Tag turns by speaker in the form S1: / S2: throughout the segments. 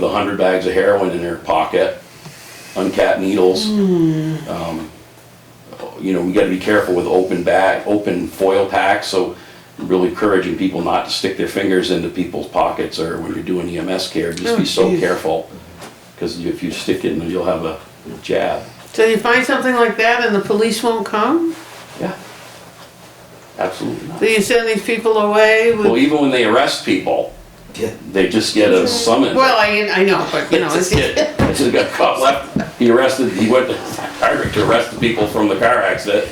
S1: with a hundred bags of heroin in her pocket, uncapped needles.
S2: Hmm.
S1: Um, You know, we gotta be careful with open bag, open foil packs, so really encouraging people not to stick their fingers into people's pockets or when you're doing EMS care, just
S2: Oh,
S1: be so
S2: geez.
S1: careful. Cause if you stick it, you'll have a jab.
S2: So you find something like that and the police won't come?
S1: Yeah. Absolutely not.
S2: Do you send these people away
S1: Well,
S2: with?
S1: even when they arrest people,
S3: Yeah.
S1: they just get a summons.
S2: Well, I, I know, but you know,
S1: This
S2: it's,
S1: kid, this kid got caught left, he arrested, he went to Hardwick to arrest the people from the car accident.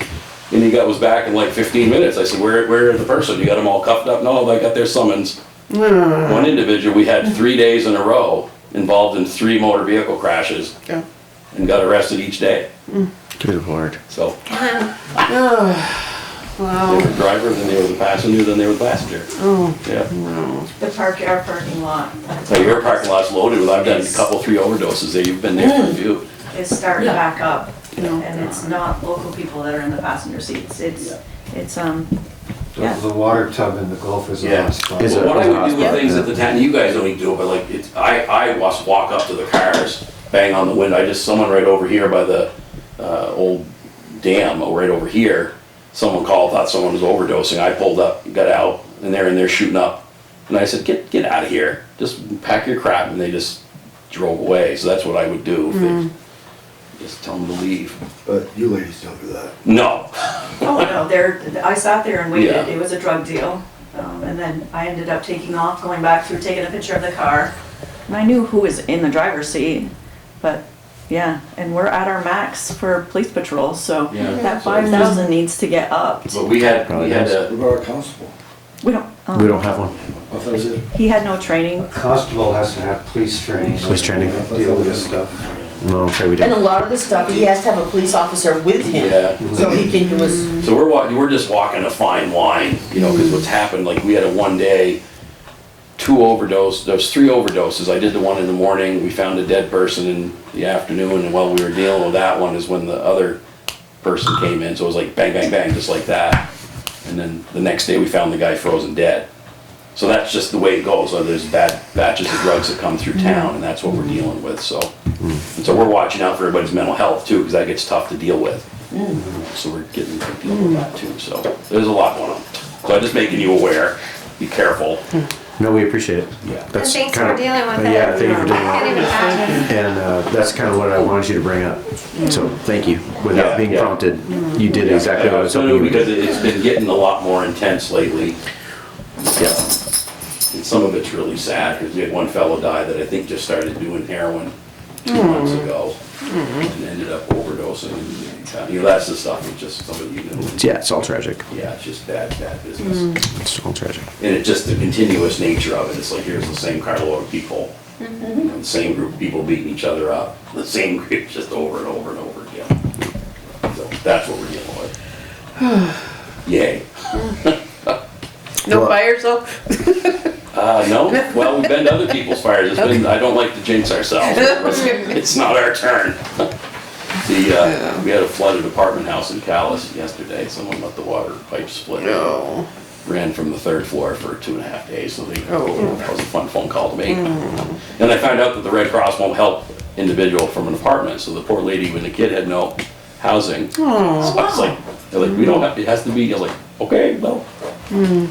S1: And he got, was back in like fifteen minutes. I said, where, where are the person? You got them all cuffed up? No, they got their summons.
S2: Mm,
S1: One individual, we had three days in a row involved in three motor vehicle crashes
S2: yeah.
S1: and got arrested each day.
S4: Good lord.
S1: So they were
S2: Wow,
S1: the driver, then they were the passenger, then they were the passenger.
S2: oh,
S1: Yeah.
S2: wow.
S5: The park, our parking lot
S1: So your parking lot's loaded with, I've done a couple, three overdoses there. You've been there for a few.
S5: is starting back up.
S2: No.
S5: And it's not local people that are in the passenger seats. It's, it's, um,
S3: The the water tub in the Gulf is a
S1: Yeah.
S3: hot spot.
S4: Is
S1: But
S4: it-
S1: what I would do with
S4: hotspot,
S1: things
S4: yeah.
S1: at the time, you guys only do it, but like, it's, I, I was walk up to the cars, bang on the window, I just, someone right over here by the, uh, old dam, or right over here, someone called, thought someone was overdosing, I pulled up, got out, and they're in there shooting up. And I said, get, get out of here, just pack your crap, and they just drove away, so that's what I would do, if they, just tell them to leave.
S6: But you ladies don't do that.
S1: No,
S5: oh no, there, I sat there and
S1: Yeah.
S5: waited. It was a drug deal. Um, and then I ended up taking off, going back through, taking a picture of the car. And I knew who was in the driver's seat, but yeah, and we're at our max for police patrol, so
S1: Yeah.
S5: that five thousand needs to get upped.
S1: but we had, we had
S6: What
S1: a,
S6: about a constable?
S5: We don't,
S7: Oh.
S5: um,
S4: We don't have one.
S6: I thought it was-
S5: he had no training.
S3: Constable has to have police training.
S4: Police training.
S3: to Deal with this stuff.
S4: No, I'm afraid we
S8: And a
S4: didn't.
S8: lot of the stuff, he has to have a police officer with him.
S1: yeah.
S8: So he can do his
S1: So we're walking, we're just walking a fine line, you know, because what's happened, like, we had a one day, two overdose, those three overdoses, I did the one in the morning, we found a dead person in the afternoon, and while we were dealing with that one is when the other person came in, so it was like bang, bang, bang, just like that. And then the next day, we found the guy frozen dead. So that's just the way it goes, so there's bad batches of drugs that come through town, and that's what we're dealing with, so. And so we're watching out for everybody's mental health too, because that gets tough to deal with. So we're getting, dealing with that too, so there's a lot going on. So I'm just making you aware, be careful.
S4: No, we appreciate it.
S1: Yeah.
S4: That's
S7: And thanks
S4: kinda-
S7: for dealing with it.
S4: Yeah, thank you for
S7: I
S4: dealing
S7: can't
S4: with
S7: even
S4: it.
S7: imagine.
S4: And uh, that's kind of what I wanted you to bring up. So
S7: Mm.
S4: thank you.
S1: Yeah,
S4: Without being
S1: yeah.
S4: prompted, you did exactly what I was
S1: No,
S4: hoping
S1: no,
S4: you would
S1: Because
S4: do.
S1: it's been getting a lot more intense lately. Yeah. And some of it's really sad, because we had one fellow die that I think just started doing heroin two months ago and ended up overdosing. You know, that's the stuff, that just somebody you know.
S4: Yeah, it's all tragic.
S1: Yeah, it's just bad, bad business.
S4: It's all tragic.
S1: And it's just the continuous nature of it. It's like, here's the same carload of people. you know, The same group of people beating each other up. The same group just over and over and over again. So that's what we're dealing with. Yay.
S2: No
S4: Well-
S2: fires though?
S1: Uh, no, well, we've been to other people's fires. It's been, I don't like to jinx ourselves. It's not our turn. The, uh, we had a flooded apartment house in Callis yesterday. Someone let the water pipe split.
S2: No.
S1: ran from the third floor for two and a half days, so they,
S2: Oh.
S1: that was a fun phone call to make. And I found out that the Red Cross won't help individual from an apartment, so the poor lady with the kid had no housing. So I was like, they're like, we don't have, it has to be, I was like, okay, well.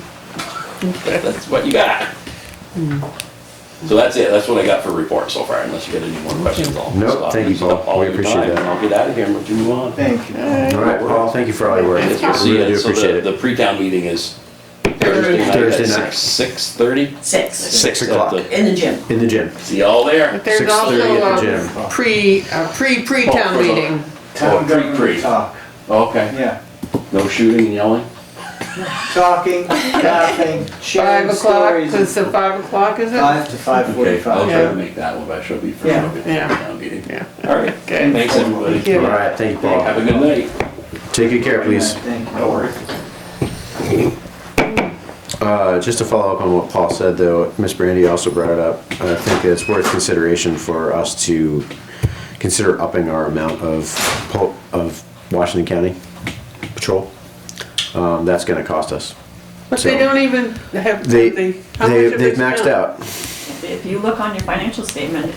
S1: That's what you got. So that's it, that's what I got for report so far, unless you got any more questions, I'll
S4: Nope,
S1: stop.
S4: thank you,
S1: Stop
S4: Paul.
S1: all
S4: We
S1: your
S4: appreciate
S1: time,
S4: that.
S1: And I'll get out of here and let you move on.
S6: Thank you.
S4: All right, Paul, thank you for all your work.
S1: Yes, we'll
S4: I
S1: see
S4: really do
S1: it. So the-
S4: appreciate
S1: The
S4: it.
S1: pre-town meeting is Thursday night at
S4: Thursday night.
S1: six, six thirty?
S8: six
S4: Six o'clock.
S1: Mm-hmm.
S8: in the gym.
S4: In the gym.
S1: See y'all there.
S2: But there's
S4: 6:30
S2: also
S4: at the
S2: a
S4: gym.
S2: pre, a pre, pre-town
S1: Oh, for the-
S2: meeting.
S1: Oh,
S9: Town
S1: pre, pre.
S9: government talk,
S1: Okay.
S9: yeah.
S1: No shooting and yelling?
S9: Talking, laughing,
S2: Five
S9: sharing
S2: o'clock,
S9: stories.
S2: is it five o'clock, is it?
S9: Five to five
S1: Okay, I'll
S9: forty-five.
S1: try to make that one, but I should be for a
S9: Yeah.
S1: bit.
S2: Yeah.
S1: Town meeting.
S2: Yeah.
S1: All right.
S2: Okay.
S1: Thanks,
S2: Thank
S1: everybody.
S4: All
S2: you.
S4: right, thank you,
S1: Have a
S4: Paul.
S1: good night.
S4: Take good care, please.
S9: Thank you.
S1: No worries.
S4: Uh, just to follow up on what Paul said, though, Miss Brandy also brought it up. I think it's worth consideration for us to consider upping our amount of pol- of Washington County patrol. Um, that's going to cost us.
S2: But they
S4: So-
S2: don't even have, they,
S4: They they
S2: how much have
S4: they've maxed
S2: spent?
S4: out.
S5: if you look on your financial statement,